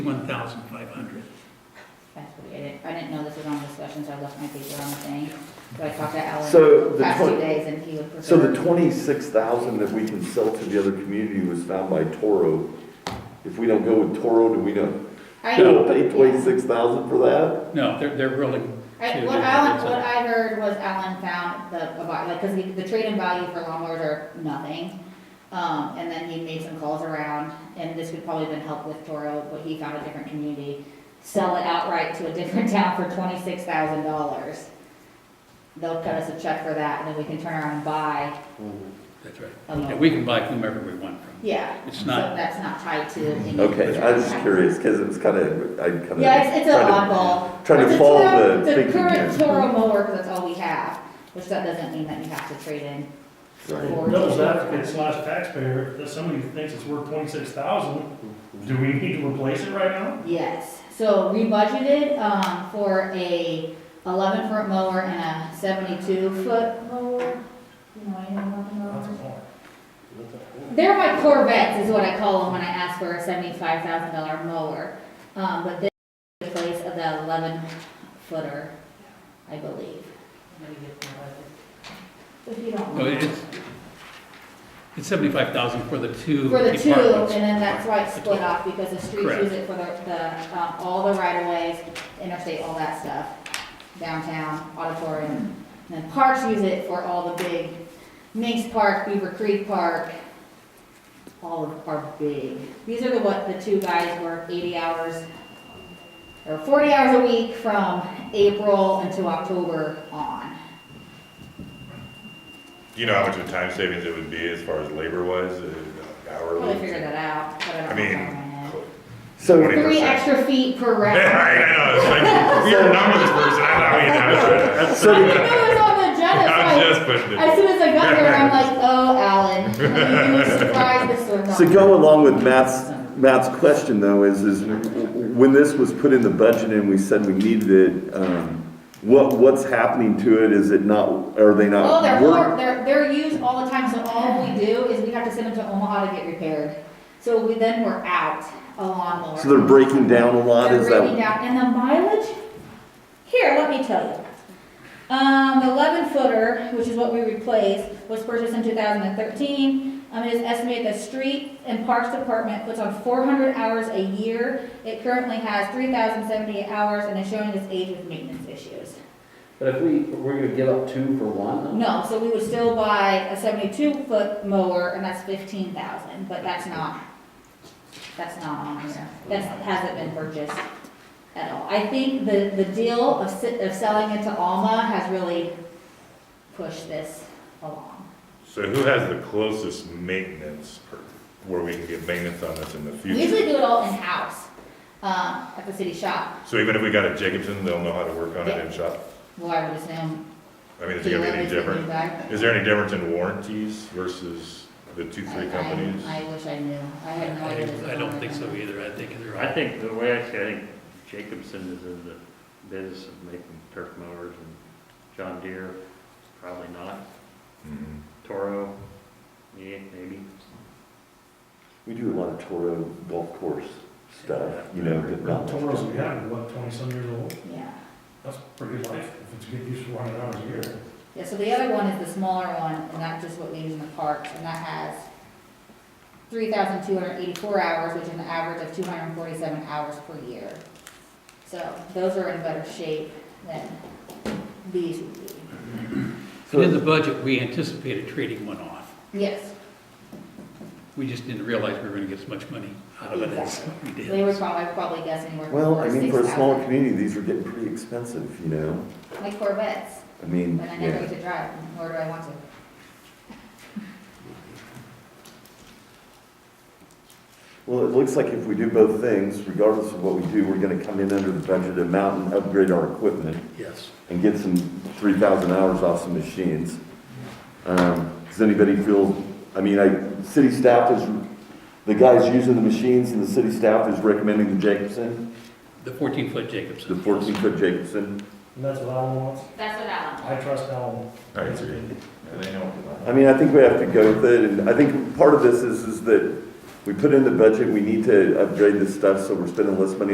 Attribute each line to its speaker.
Speaker 1: One thousand five hundred.
Speaker 2: That's what we did. I didn't know this was on discussion, so I left my paper on the thing. But I talked to Alan
Speaker 3: So
Speaker 2: the
Speaker 3: the
Speaker 2: past two
Speaker 3: twen-
Speaker 2: days and he would prefer.
Speaker 3: So the twenty-six thousand that we can sell to the other community was found by Toro. If we don't go with Toro, do we not,
Speaker 2: I-
Speaker 3: we don't pay twenty-six thousand for that?
Speaker 1: No, they're, they're really,
Speaker 2: I,
Speaker 1: Yeah,
Speaker 2: what
Speaker 1: yeah,
Speaker 2: Alan,
Speaker 1: that's
Speaker 2: what
Speaker 1: it.
Speaker 2: I heard was Alan found the, about- like, cause the, the trade-in value for lawnmowers are nothing. Um, and then he made some calls around, and this would probably been helped with Toro, but he found a different community. Sell it outright to a different town for twenty-six thousand dollars. They'll cut us a check for that, and then we can turn around and buy
Speaker 1: that's right.
Speaker 2: a
Speaker 1: Yeah,
Speaker 2: lawnmower.
Speaker 1: we can buy whomever we want from.
Speaker 2: Yeah,
Speaker 1: It's
Speaker 2: so
Speaker 1: not-
Speaker 2: that's not tied to. any-
Speaker 3: Okay, I was just curious, because it was kind of, I kind of.
Speaker 2: Yeah, it's, it's an oddball.
Speaker 3: trying to
Speaker 2: It's a
Speaker 3: follow
Speaker 2: Toro-
Speaker 3: the thinking
Speaker 2: current
Speaker 3: here.
Speaker 2: Toro mower, 'cause that's all we have, which that doesn't mean that you have to trade in.
Speaker 3: Right.
Speaker 2: for-
Speaker 4: Those applicant slash taxpayer, if somebody thinks it's worth twenty-six thousand, do we need to replace it right now?
Speaker 2: Yes, so we budgeted, um, for a eleven foot mower and a seventy-two foot mower. You know anything about the
Speaker 4: That's
Speaker 2: mowers?
Speaker 4: more.
Speaker 2: They're my Corvettes is what I call them when I ask for a seventy-five thousand dollar mower. Um, but this is the place of the eleven footer, I believe. If you don't
Speaker 1: No,
Speaker 2: mind.
Speaker 1: it's, it's seventy-five thousand for the two.
Speaker 2: For the two, and
Speaker 1: departments.
Speaker 2: then that's why it's
Speaker 1: The
Speaker 2: split
Speaker 1: two.
Speaker 2: off, because the streets
Speaker 1: Correct.
Speaker 2: use it for the, the, um, all the right of ways, interstate, all that stuff. Downtown, auditorium, and then parks use it for all the big, Minx Park, Beaver Creek Park. All of are big. These are the, what, the two guys work eighty hours, or forty hours a week from April until October on.
Speaker 5: Do you know how much of a time savings it would be as far as labor wise, uh,
Speaker 2: Probably
Speaker 5: hourly?
Speaker 2: figure that out, but I
Speaker 5: I
Speaker 2: don't know. off the top of
Speaker 5: mean,
Speaker 2: my head.
Speaker 3: So,
Speaker 5: 20.
Speaker 2: Three
Speaker 5: 20%.
Speaker 2: extra feet per round.
Speaker 5: Yeah, I I know, it's like, we are numbers person, I thought we had that.
Speaker 2: I
Speaker 3: so,
Speaker 2: didn't know it was on the agenda, so
Speaker 5: I'm
Speaker 2: I-
Speaker 5: just putting
Speaker 2: as
Speaker 5: it,
Speaker 2: soon as I got there, I'm like, oh, Alan, you were surprised this was on.
Speaker 3: so go along with Matt's, Matt's question though, is, is when this was put in the budget and we said we needed it, um, what, what's happening to it? Is it not, are they not?
Speaker 2: Oh, they're,
Speaker 3: work-
Speaker 2: hor- they're, they're used all the time, so all we do is we have to send them to Omaha to get repaired. So we, then we're out a lawnmower.
Speaker 3: So they're breaking down a lot,
Speaker 2: They're
Speaker 3: is that?
Speaker 2: breaking down, and the mileage, here, let me tell you. Um, the eleven footer, which is what we replaced, was purchased in two thousand and thirteen. Um, it is estimated the street and parks department puts on four hundred hours a year. It currently has three thousand seventy-eight hours and is showing its age with maintenance issues.
Speaker 6: But if we, we're gonna give up two for one?
Speaker 2: No, so we would still buy a seventy-two foot mower, and that's fifteen thousand, but that's not, that's not on here. That hasn't been purchased at all. I think the, the deal of, si- of selling it to Alma has really pushed this along.
Speaker 5: so who has the closest maintenance per, where we can get maintenance on this in the
Speaker 2: We usually
Speaker 5: future?
Speaker 2: do it all in-house, um, at the city shop,
Speaker 5: So even if we got a Jacobson, they'll know how to work on it in shop?
Speaker 2: well, I would assume.
Speaker 5: I mean, is it gonna be
Speaker 2: Hewlett
Speaker 5: any
Speaker 2: is the new
Speaker 5: different?
Speaker 2: guy.
Speaker 5: Is there any difference in warranties versus the two,
Speaker 2: I-
Speaker 5: three
Speaker 2: I-
Speaker 5: companies?
Speaker 2: I wish I knew. I had no idea. this
Speaker 1: I I don't
Speaker 2: was
Speaker 1: think
Speaker 2: on
Speaker 1: so
Speaker 2: there.
Speaker 1: either, I think they're.
Speaker 7: I think, the way I see it, I think Jacobson is in the business of making turf mowers and John Deere, probably not.
Speaker 5: Mhm.
Speaker 7: Toro, yeah, maybe.
Speaker 3: We do a lot of Toro golf course stuff, you know, but not. much
Speaker 4: Toro's
Speaker 3: down
Speaker 4: we
Speaker 3: there.
Speaker 4: have, what, twenty-some years old?
Speaker 2: Yeah.
Speaker 4: That's pretty life, if it's good use for one hour a year.
Speaker 2: Yeah, so the other one is the smaller one, and that's just what we use in the parks, and that has three thousand two hundred eighty-four hours, which is an average of two hundred and forty-seven hours per year. So those are in better shape than these would be.
Speaker 3: So-
Speaker 1: In the budget, we anticipated trading one off.
Speaker 2: Yes,
Speaker 1: We just didn't realize we were gonna get as much money out of it as we did.
Speaker 2: they were probably, I would probably guess anywhere from
Speaker 3: Well,
Speaker 2: four
Speaker 3: I
Speaker 2: to
Speaker 3: mean, for a smaller
Speaker 2: 6,000.
Speaker 3: community, these were getting pretty expensive, you know?
Speaker 2: Like Corvettes,
Speaker 3: I mean,
Speaker 2: but I never
Speaker 3: yeah.
Speaker 2: get to drive, nor do I want to.
Speaker 3: Well, it looks like if we do both things, regardless of what we do, we're gonna come in under the budget amount and upgrade our equipment
Speaker 1: Yes.
Speaker 3: and get some three thousand hours off some machines. Um, does anybody feel, I mean, I, city staff is, the guys using the machines and the city staff is recommending the Jacobson,
Speaker 1: The fourteen-foot
Speaker 3: the
Speaker 1: Jacobson.
Speaker 3: fourteen foot Jacobson.
Speaker 4: And that's what Alan wants.
Speaker 2: That's what Alan.
Speaker 4: I trust Alan.
Speaker 5: I agree. Yeah, they know.
Speaker 3: I mean, I think we have to go with it, and I think part of this is, is that we put in the budget, we need to upgrade this stuff, so we're spending less money